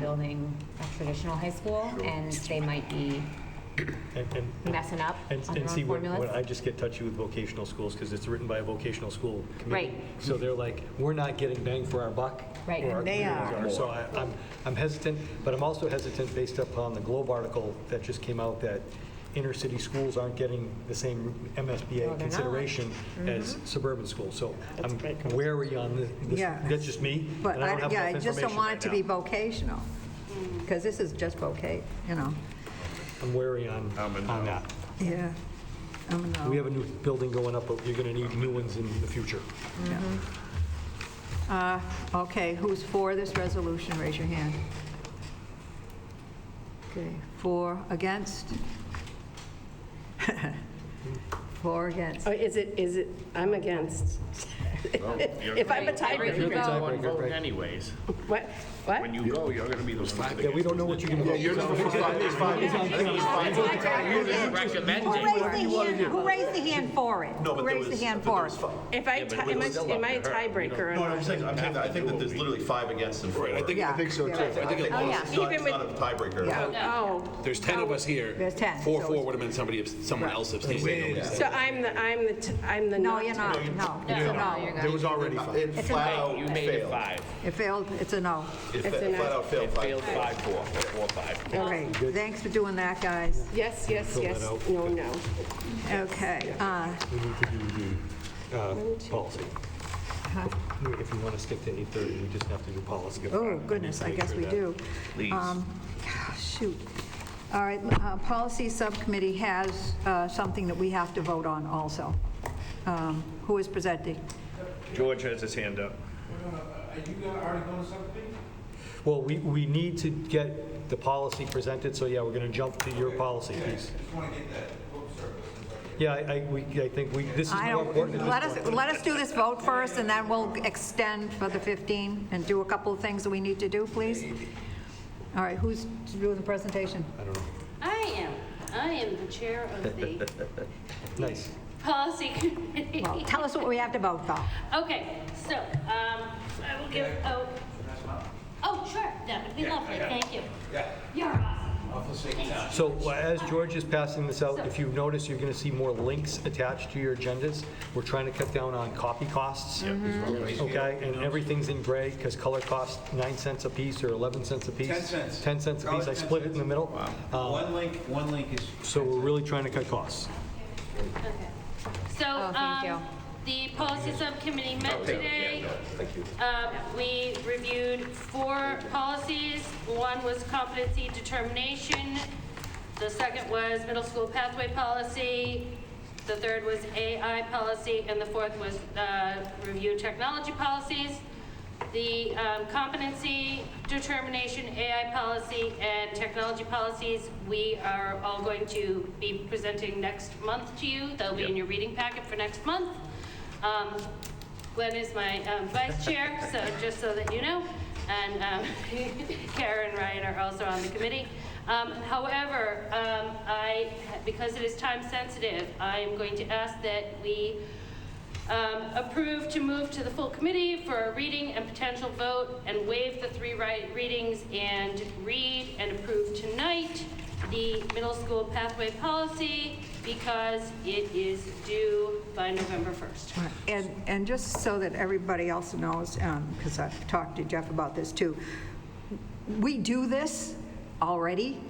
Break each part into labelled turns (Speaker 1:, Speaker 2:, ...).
Speaker 1: building a traditional high school,
Speaker 2: Sure.
Speaker 1: and they might be
Speaker 3: And- and- and-
Speaker 1: messing up
Speaker 3: And,
Speaker 1: on their
Speaker 3: and see,
Speaker 1: own
Speaker 3: when,
Speaker 1: formulas.
Speaker 3: when I just get touchy with vocational schools, because it's written by a vocational school committee.
Speaker 1: Right.
Speaker 3: So they're like, we're not getting bang for our buck.
Speaker 1: Right.
Speaker 3: where our
Speaker 4: They
Speaker 3: communities
Speaker 4: are.
Speaker 3: So I, I'm, I'm hesitant, but I'm also hesitant based upon the Globe article that just came out that inner city schools aren't getting the same
Speaker 1: No,
Speaker 3: MSBA
Speaker 1: they're not. Mm-hmm.
Speaker 3: consideration as suburban schools. So I'm wary on this- this,
Speaker 4: Yeah.
Speaker 3: that's just me.
Speaker 4: But,
Speaker 3: and don't
Speaker 4: I-
Speaker 3: have
Speaker 4: yeah, I
Speaker 3: enough
Speaker 4: just don't
Speaker 3: information
Speaker 4: want
Speaker 3: right
Speaker 4: it to be
Speaker 3: now.
Speaker 4: vocational, because this is just voc, you know,
Speaker 3: I'm wary on,
Speaker 2: I'm a no.
Speaker 3: on that.
Speaker 4: yeah. I don't know.
Speaker 3: We have a new building going up, but you're going to need new ones in the future.
Speaker 4: Uh, Okay, who's for this resolution, raise your hand. Okay, for, against? For, against?
Speaker 5: Oh, is it, is it, I'm against.
Speaker 2: you're
Speaker 5: If I'm a
Speaker 3: You're the
Speaker 5: tiebreaker,
Speaker 3: tiebreaker,
Speaker 6: vote
Speaker 3: right.
Speaker 6: anyways.
Speaker 5: what, what?
Speaker 2: When you go, you're going to be the one.
Speaker 3: Yeah, we don't know what you're going to vote.
Speaker 2: You're not the first
Speaker 4: Who raised
Speaker 6: Recommending.
Speaker 4: the hand, who raised the hand for it?
Speaker 7: No, but there
Speaker 4: Who raised
Speaker 7: was-
Speaker 4: the hand
Speaker 7: but there
Speaker 4: for
Speaker 7: was
Speaker 4: it?
Speaker 7: five.
Speaker 5: If I, ti- am I am I a tiebreaker? or
Speaker 7: No, no, I'm
Speaker 5: not?
Speaker 7: saying, I'm saying that, I think that there's literally five against and four.
Speaker 8: Right, I think, I
Speaker 4: Yeah,
Speaker 8: think so too.
Speaker 4: yeah, right.
Speaker 8: I think it was,
Speaker 7: It's not, it's
Speaker 5: Even
Speaker 7: not a tiebreaker.
Speaker 4: Yeah.
Speaker 5: Oh,
Speaker 6: there's 10 of us here.
Speaker 4: There's 10,
Speaker 6: Four,
Speaker 4: so
Speaker 6: four
Speaker 4: it's-
Speaker 6: would have been somebody, abs- someone else abstaining.
Speaker 5: so I'm the, I'm the, t- I'm the
Speaker 4: No,
Speaker 5: not.
Speaker 4: you're not, no. It's a no.
Speaker 8: there was already five.
Speaker 7: It flat out
Speaker 6: You made it
Speaker 7: failed.
Speaker 6: five.
Speaker 4: It failed, it's a no.
Speaker 7: It
Speaker 5: It's a
Speaker 7: fa-
Speaker 5: no.
Speaker 7: flat out failed. five.
Speaker 6: Failed five, four, four, five.
Speaker 4: All right, thanks for doing that, guys.
Speaker 5: Yes, yes,
Speaker 3: Fill that
Speaker 5: yes,
Speaker 3: out.
Speaker 5: no, no.
Speaker 4: Okay, uh,
Speaker 3: We need to do the uh, policy. Uh-huh. If you want to stick to 8:30, we just have to do policy.
Speaker 4: oh goodness, I guess we do. Um,
Speaker 2: Please.
Speaker 4: Shoot. All right, uh, Policy Subcommittee has uh, something that we have to vote on also. Um, Who is presenting?
Speaker 2: George has his hand up.
Speaker 3: Well, we, we need to get the policy presented, so yeah, we're going to jump to your policy piece. Yeah, I, I- we, I think we, this is
Speaker 4: I
Speaker 3: more
Speaker 4: don't,
Speaker 3: important.
Speaker 4: let us, let us do this vote first, and then we'll extend for the 15 and do a couple of things that we need to do, please. All right, who's doing the presentation?
Speaker 9: I am. I am the chair of the
Speaker 3: Nice.
Speaker 9: policy committee.
Speaker 4: Well, tell us what we have to vote, though.
Speaker 9: Okay, so um, I will give. Oh, oh, sure. That would be lovely. Thank you. Yeah. You're awesome.
Speaker 3: So well, as George is passing this out, if you've noticed, you're going to see more links attached to your agendas. We're trying to cut down on copy costs. Okay, and everything's in gray because color costs nine cents a piece or 11 cents a piece.
Speaker 10: 10 cents.
Speaker 3: 10 cents a
Speaker 10: Call it
Speaker 3: piece. I
Speaker 10: 10
Speaker 3: split it in
Speaker 10: cents.
Speaker 3: the middle. Um,
Speaker 10: One link, one link is.
Speaker 3: So we're really trying to cut costs.
Speaker 9: Okay. So
Speaker 1: Oh, thank
Speaker 9: um, the policy subcommittee met today.
Speaker 7: Thank you.
Speaker 9: Um, We reviewed four policies. One was competency determination. The second was middle school pathway policy. The third was AI policy, and the fourth was uh, review technology policies. The um, competency determination, AI policy, and technology policies, we are all going to be presenting next month to you. They'll be in your reading packet for next month. Um, Glenn is my um, vice chair, so just so that you know. And um, Kara and Ryan are also on the committee. Um, However, um, I, because it is time sensitive, I am going to ask that we um, approve to move to the full committee for a reading and potential vote and waive the three ri- readings and read and approve tonight the middle school pathway policy because it is due by November 1st.
Speaker 4: And, and just so that everybody else knows, because I've talked to Jeff about this too, we do this already,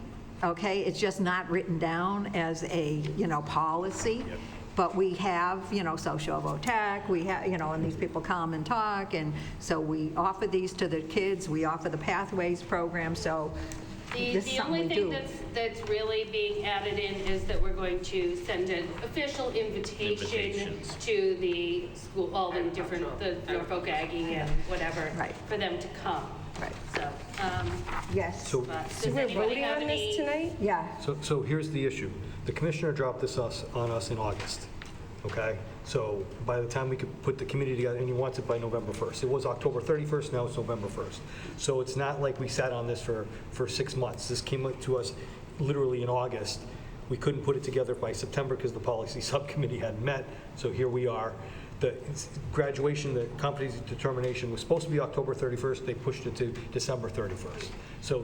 Speaker 4: okay? It's just not written down as a, you know, policy. But we have, you know, social votac, we have, you know, and these people come and talk, and so we offer these to the kids, we offer the Pathways program, so
Speaker 9: The,
Speaker 4: this is
Speaker 9: the
Speaker 4: something
Speaker 9: only
Speaker 4: we do.
Speaker 9: thing that's, that's really being added in is that we're going to send an official invitation
Speaker 6: Invitations.
Speaker 9: to the school, all the different, the Norfolk Aggie and whatever,
Speaker 4: Right.
Speaker 9: for them to come.
Speaker 4: Right.
Speaker 9: So, um,
Speaker 4: Yes,
Speaker 3: So
Speaker 9: but does
Speaker 5: So we're
Speaker 9: anybody
Speaker 5: voting
Speaker 9: have
Speaker 5: on
Speaker 9: any-
Speaker 5: this tonight?
Speaker 4: yeah.
Speaker 3: So, so here's the issue. The commissioner dropped this us, on us in August, okay? So by the time we could put the committee together, and he wants it by November 1st. It was October 31st, now it's November 1st. So it's not like we sat on this for, for six months. This came up to us literally in August. We couldn't put it together by September because the policy subcommittee hadn't met, so here we are. The graduation, the competency determination was supposed to be October 31st, they pushed it to December 31st. So